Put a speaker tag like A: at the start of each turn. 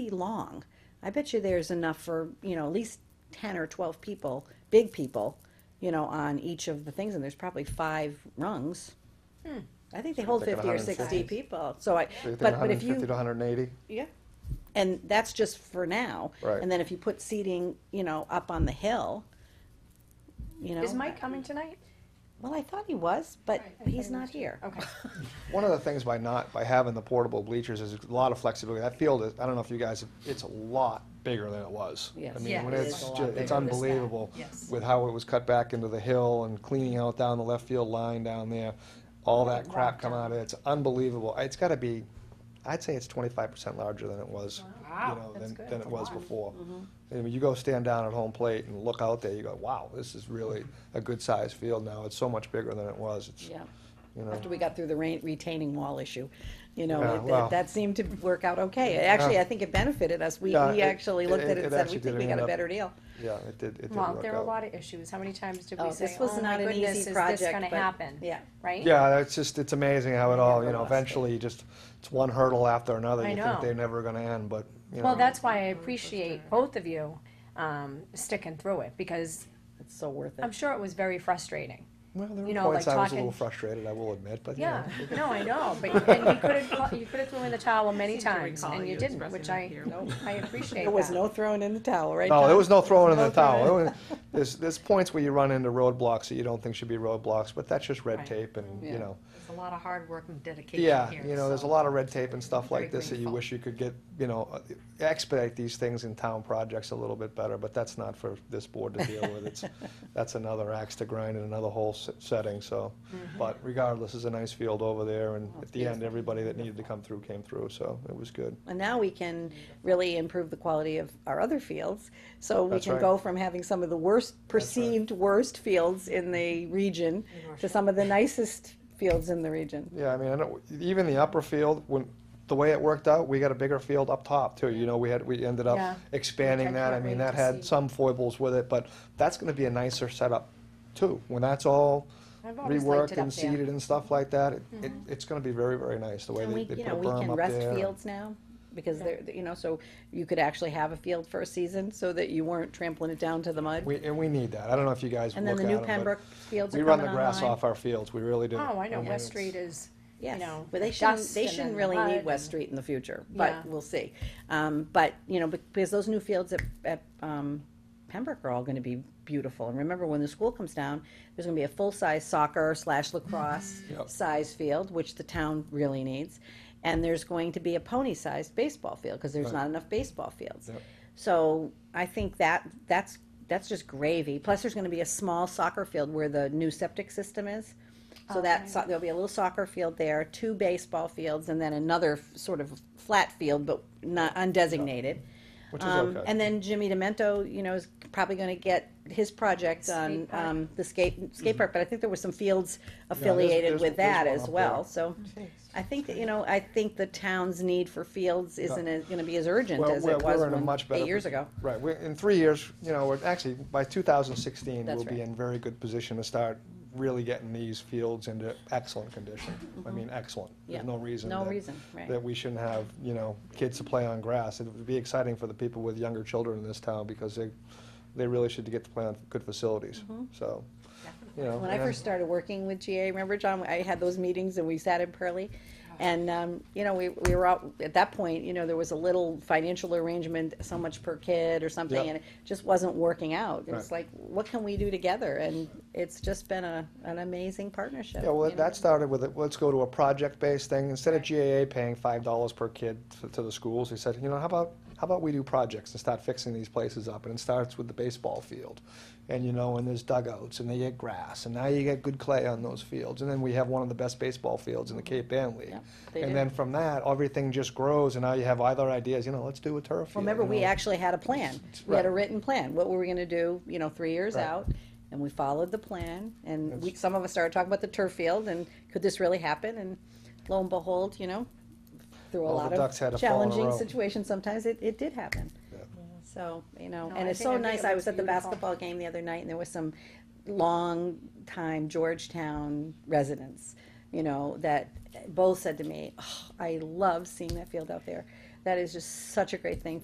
A: long. I bet you there's enough for, you know, at least ten or twelve people, big people, you know, on each of the things, and there's probably five rungs.
B: Hmm.
A: I think they hold
C: thinking
A: fifty or
C: 150.
A: sixty people, so I,
C: So you think
A: but, but if
C: 150
A: you,
C: to 180?
A: yeah. And that's just for now.
C: Right.
A: And then if you put seating, you know, up on the hill, you know.
B: Is Mike coming tonight?
A: Well, I thought he was, but
B: Right, I thought
A: he's
B: he
A: not
B: was
A: here.
B: Okay.
C: One of the things by not, by having the portable bleachers is a lot of flexibility. That field is, I don't know if you guys, it's a lot bigger than it was.
A: Yes.
C: I mean,
D: Yeah,
C: when
D: it
C: it's,
D: is a lot
C: ju-
D: bigger
C: it's
D: this time,
C: unbelievable
D: yes.
C: with how it was cut back into the hill and cleaning out down the left field line down there. All that crap come out of it. It's unbelievable. It's gotta be, I'd say it's twenty-five percent larger than it was, you
B: Wow,
C: know,
B: that's
C: than,
B: good.
C: than it
B: That's a
C: was
B: lot.
C: before. And when you go stand down at home plate and look out there, you go, wow, this is really a good-sized field now. It's so much bigger than it was. It's,
A: Yeah.
C: you know.
A: After we got through the rain, retaining wall issue, you know,
C: Yeah,
A: it-
C: well.
A: that, that seemed to work out okay. It Actually,
C: Yeah.
A: I think it benefited us. We,
C: Yeah,
A: we
C: it-
A: actually looked
C: it-
A: at it
C: it
A: and said,
C: actually
A: we think
C: did
A: we got
C: end
A: a
C: up-
A: better deal.
C: Yeah, it did, it did
B: Well,
C: work
B: there are a
C: out.
B: lot of issues. How many times did
A: Oh,
B: we
A: this
B: say,
A: was
B: oh my
A: not an
B: goodness,
A: easy
B: is this
A: project,
B: gonna
A: but-
B: happen?
A: yeah.
B: Right?
C: Yeah, it's just, it's amazing how it all, you know,
A: Everlasting.
C: eventually you just, it's one hurdle after another.
B: I
C: You
B: know.
C: think they're never gonna end, but, you
B: Well,
C: know,
B: that's why I appreciate both of you, um, sticking through it because
A: It's so worth
B: I'm
A: it.
B: sure it was very frustrating.
C: well, there
B: you
C: were
B: know,
C: points
B: like
C: I was a
B: talking-
C: little frustrated, I will admit, but, you know.
B: Yeah, no, I know, but, and you could have, you could have thrown in the towel many
D: seem to
B: times
D: recall
B: and you
D: you
B: didn't,
D: expressing
B: which
D: that
B: I,
D: here.
B: I appreciate that.
A: There was no throwing in the towel, right?
C: No,
A: John?
C: there was no throwing in
A: No
C: the towel. There was- There's, there's points where you run into roadblocks that you don't think should be roadblocks, but that's just red
B: Right.
C: tape and,
A: Yeah.
C: you know.
D: There's a lot of hard work and dedication
C: Yeah,
D: here.
C: you know, there's a
D: so-
C: lot of red tape and stuff like
D: Very
C: this that you
D: grateful.
C: wish you could get, you know, uh, expedite these things in town projects a little bit better, but that's not for this board to deal with. It's, that's another axe to grind in another whole s- setting, so.
D: Mm-hmm.
C: But regardless, it's a nice field over there, and at the end, everybody that needed to come through came through, so it was good.
A: And now we can really improve the quality of our other fields. So we
C: That's
A: can
C: right.
A: go from having some of the worst, perceived worst fields in the region to some of the nicest fields in the region.
C: Yeah, I mean, I know, even the upper field, when, the way it worked out, we got a bigger field up top too, you know, we had, we ended
B: Yeah.
C: up expanding
B: Which I
C: that, I
B: can't
C: mean,
B: wait
C: that
B: to see.
C: had some foibles with it, but that's gonna be a nicer setup too, when that's all
B: I've always liked
C: reworked
B: it up
C: and
B: there. Mm-hmm.
C: seeded and stuff like that, it, it, it's gonna be very, very nice, the way
A: And
C: they,
A: we,
C: they
A: you
C: put a
A: know, we
C: berm
A: can
C: up
A: rest
C: there.
A: fields now because they're, you know, so you could actually have a field for a season so that you weren't trampling it down to the mud.
C: We, and we need that, I don't know if you guys look
A: And
C: at
A: then the new
C: 'em, but
A: Pembroke fields
C: We
A: are
C: run the
A: coming
C: grass
A: online.
C: off our fields, we really do.
B: Oh, I know,
C: And
B: West
C: it's-
B: Street is, you
A: Yes,
B: know,
A: but they shouldn't,
B: dust
A: they
B: and then
A: shouldn't really
B: mud
A: need
B: and-
A: West Street in the future, but
B: Yeah.
A: we'll see. Um, but, you know, bec- because those new fields at, at, um, Pembroke are all gonna be beautiful. And remember, when the school comes down, there's gonna be a full-size soccer slash lacrosse
C: Yep.
A: size field, which the town really needs. And there's going to be a pony-sized baseball field, because there's
C: Right.
A: not enough baseball fields.
C: Yep.
A: So I think that, that's, that's just gravy. Plus, there's gonna be a small soccer field where the new septic system is.
C: Oh,
A: So that, so- there'll be a little soccer field there, two baseball fields, and then another f- sort of flat field, but not undesignated.
C: Which is
A: Um,
C: okay.
A: and then Jimmy Demento, you know, is probably gonna get his project on,
B: park.
A: um, the skate, skate park, but I think there were some fields
C: Mm-hmm. there's-
A: affiliated
C: there's-
A: with
C: there's
A: that
C: one
A: as
C: up
A: well,
C: there.
A: so. I think, that, you know, I think the town's need for fields isn't as- gonna be as urgent
C: Well,
A: as
C: we're-
A: it was
C: we're in a
A: when-
C: much better
A: eight years
C: posi-
A: ago.
C: Right, we're, in three years, you know, we're, actually, by two thousand sixteen,
A: That's
C: we'll be
A: right.
C: in very good position to start really getting these fields into excellent condition. I mean, excellent.
A: Mm-hmm. Yeah.
C: There's no reason.
A: No
C: that-
A: reason, right.
C: That we shouldn't have, you know, kids to play on grass. It would be exciting for the people with younger children in this town because they, they really should get to play on good facilities, so, you know.
A: Mm-hmm. When I
C: and-
A: first started working with GA, remember, John, I had those meetings and we sat in Pearlie? And, um, you know, we, we were out, at that point, you know, there was a little financial arrangement, so much per kid or something,
C: Yep.
A: and it just wasn't working out. It was
C: Right.
A: like, what can we do together? And it's just been a, an amazing partnership.
C: Yeah, well,
A: you know?
C: that started with, a- let's go to a project-based thing. Instead of GAA paying five dollars per kid to- to the schools, he said, you know, how about, how about we do projects and start fixing these places up? And it starts with the baseball field. And, you know, and there's dugouts, and they get grass, and now you get good clay on those fields. And then we have one of the best baseball fields in the Cape Ann League.
A: Yep, they do.
C: And then from that, everything just grows, and now you have other ideas, you know, let's do a turf
A: Well,
C: field.
A: remember,
C: you
A: we
C: know.
A: actually had a plan. We had a
C: right.
A: written plan. What were we gonna do, you know, three years
C: Right.
A: out? And we followed the plan, and we, some of us started talking about the turf field, and could this really happen? And lo and behold, you know, through a
C: All the
A: lot
C: ducks had
A: of
C: to fall in a
A: challenging
C: row.
A: situations, sometimes it, it did happen.
C: Yeah.
A: So, you know,
B: No,
A: and
B: I
A: it's
B: think-
A: so
B: I think
A: nice.
B: it
A: I
B: looks
A: was at the
B: beautiful.
A: basketball game the other night, and there was some long-time Georgetown residents, you know, that both said to me, "Oh, I love seeing that field out there. That is just such a great thing